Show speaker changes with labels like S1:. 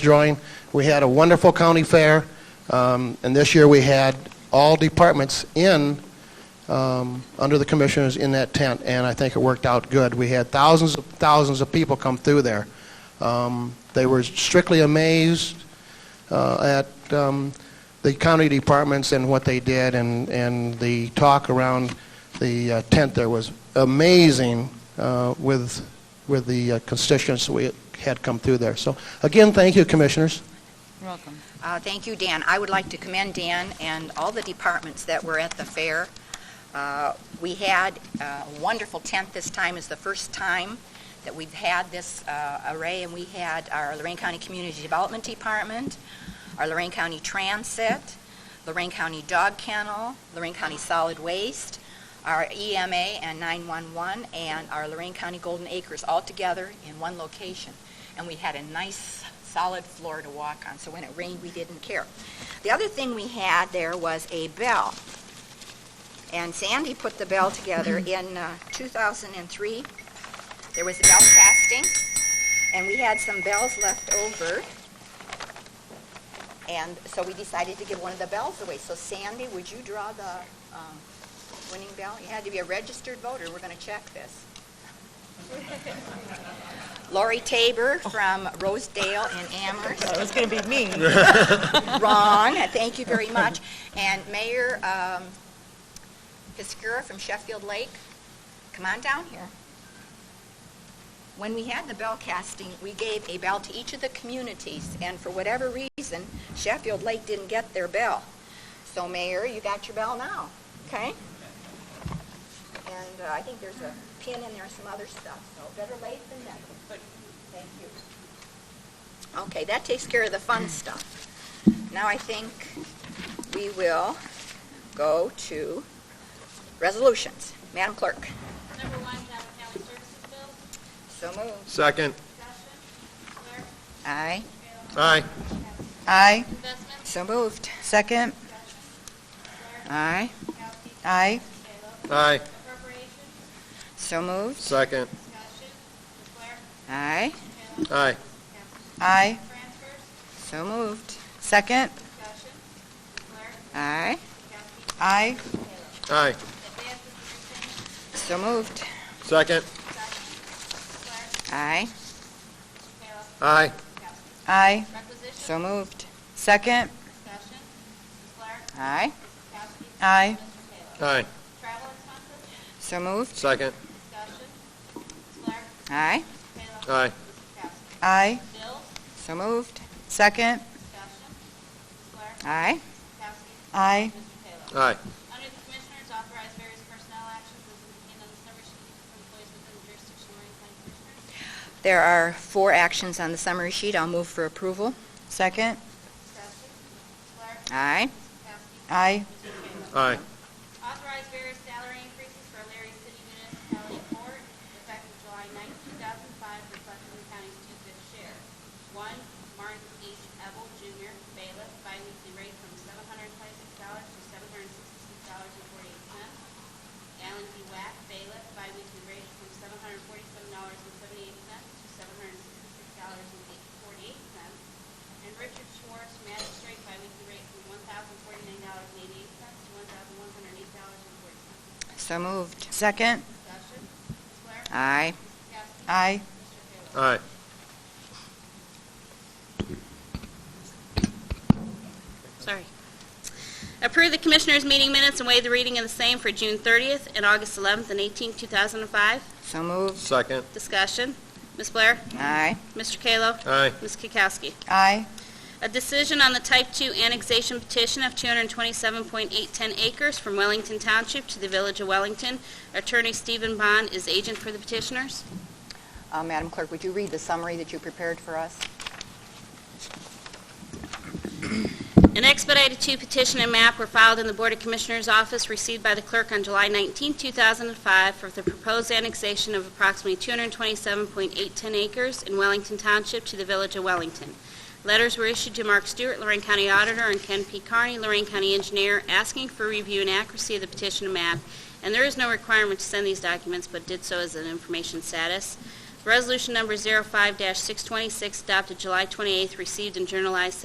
S1: drawing. We had a wonderful county fair, um, and this year we had all departments in, um, under the commissioners in that tent, and I think it worked out good. We had thousands, of thousands of people come through there. Um, They were strictly amazed uh, at um, the county departments and what they did, and, and the talk around the uh, tent there was amazing uh, with, with the uh, constituents we had come through there. So, again, thank you, Commissioners.
S2: You're welcome.
S3: Uh, Thank you, Dan. I would like to commend Dan and all the departments that were at the fair. Uh, We had uh, a wonderful tent this time. It's the first time that we've had this uh, array, and we had our Lorraine County Community Development Department, our Lorraine County Transit, Lorraine County Dog Kennel, Lorraine County Solid Waste, our EMA and 911, and our Lorraine County Golden Acres all together in one location. And we had a nice solid floor to walk on, so when it rained, we didn't care. The other thing we had there was a bell. And Sandy put the bell together in uh, 2003. There was a bell casting, and we had some bells left over. And so we decided to give one of the bells away. So Sandy, would you draw the um, winning bell? You had to be a registered voter. We're going to check this. Lori Tabor from Rosedale in Amherst.
S2: It was going to be me.
S3: Wrong, thank you very much. And Mayor um, Piscura from Sheffield Lake, come on down here. When we had the bell casting, we gave a bell to each of the communities, and for whatever reason, Sheffield Lake didn't get their bell. So Mayor, you got your bell now, okay? And uh, I think there's a pin in there, and some other stuff, so better late than never. Thank you. Okay, that takes care of the fun stuff. Now I think we will go to resolutions. Madam Clerk.
S4: Number one, Downtown County Services Bill,
S3: So moved.
S5: Second.
S4: discussion, Blair,
S3: Aye.
S5: Aye.
S2: Aye.
S4: investments,
S3: So moved.
S2: Second.
S3: Aye.
S4: Kowski,
S2: Aye.
S4: Kayla,
S5: Aye.
S4: appropriations,
S3: So moved.
S5: Second.
S4: discussion, Blair,
S3: Aye.
S4: Kayla,
S5: Aye.
S2: Aye.
S4: transfers,
S3: So moved.
S2: Second.
S4: discussion, Blair,
S3: Aye.
S4: Kowski,
S2: Aye.
S5: Aye.
S4: advances and repayments,
S3: So moved.
S5: Second.
S4: discussion, Blair,
S3: Aye.
S4: Kayla,
S5: Aye.
S4: Kowski,
S2: Aye.
S4: requisitions,
S3: So moved.
S2: Second.
S4: discussion, Blair,
S3: Aye.
S4: Kowski,
S2: Aye.
S4: Mr. Kayla,
S5: Aye.
S4: travel expenses,
S3: So moved.
S5: Second.
S4: discussion, Blair,
S3: Aye.
S4: Kayla,
S5: Aye.
S4: Kowski,
S2: Aye.
S4: bills,
S3: So moved.
S2: Second.
S4: discussion, Blair,
S3: Aye.
S4: Kowski,
S2: Aye.
S4: Mr. Kayla.
S5: Aye.
S4: Under the Commissioners, authorize various personnel actions as indicated on the summary sheet for employees within the jurisdiction of Lorraine County Commissioners.
S3: There are four actions on the summary sheet. I'll move for approval.
S2: Second.
S4: Discussion. Ms. Blair.
S3: Aye.
S4: Ms. Kowski.
S2: Aye.
S4: Mr. Kayla.
S5: Aye.
S4: Authorize various salary increases for Larry City Municipality Court effective July 9, 2005, reflecting the county's two-fifth share. One, Martin H. Ebel Jr., bailiff, biweekly rate from $726 to $766.48. Alan D. Wack, bailiff, biweekly rate from $747.78 to $766.48. And Richard Schwartz, magistrate, biweekly rate from $1,049.88 to $1,108.40.
S3: So moved.
S2: Second.
S4: Discussion, Ms. Blair?
S3: Aye.
S4: Ms. Kowski?
S2: Aye.
S4: Mr. Kayla?
S5: Aye.
S4: Sorry. Approve the Commissioners' meeting minutes and waive the reading of the same for June 30th and August 11th and 18th, 2005.
S3: So moved.
S5: Second.
S4: Discussion. Ms. Blair?
S3: Aye.
S4: Mr. Kallo?
S5: Aye.
S4: Ms. Kukowski?
S2: Aye.
S4: A decision on the Type 2 annexation petition of 227.810 acres from Wellington Township to the Village of Wellington. Attorney Stephen Bond is agent for the petitioners.
S3: Uh, Madam Clerk, would you read the summary that you prepared for us?
S4: An expedited two petition and map were filed in the Board of Commissioners' office received by the clerk on July 19, 2005, for the proposed annexation of approximately 227.810 acres in Wellington Township to the Village of Wellington. Letters were issued to Mark Stewart, Lorraine County Auditor, and Ken P. Carney, Lorraine County Engineer, asking for review and accuracy of the petition and map, and there is no requirement to send these documents, but did so as an information status. Resolution number 05-626 adopted July 28th, received and journalized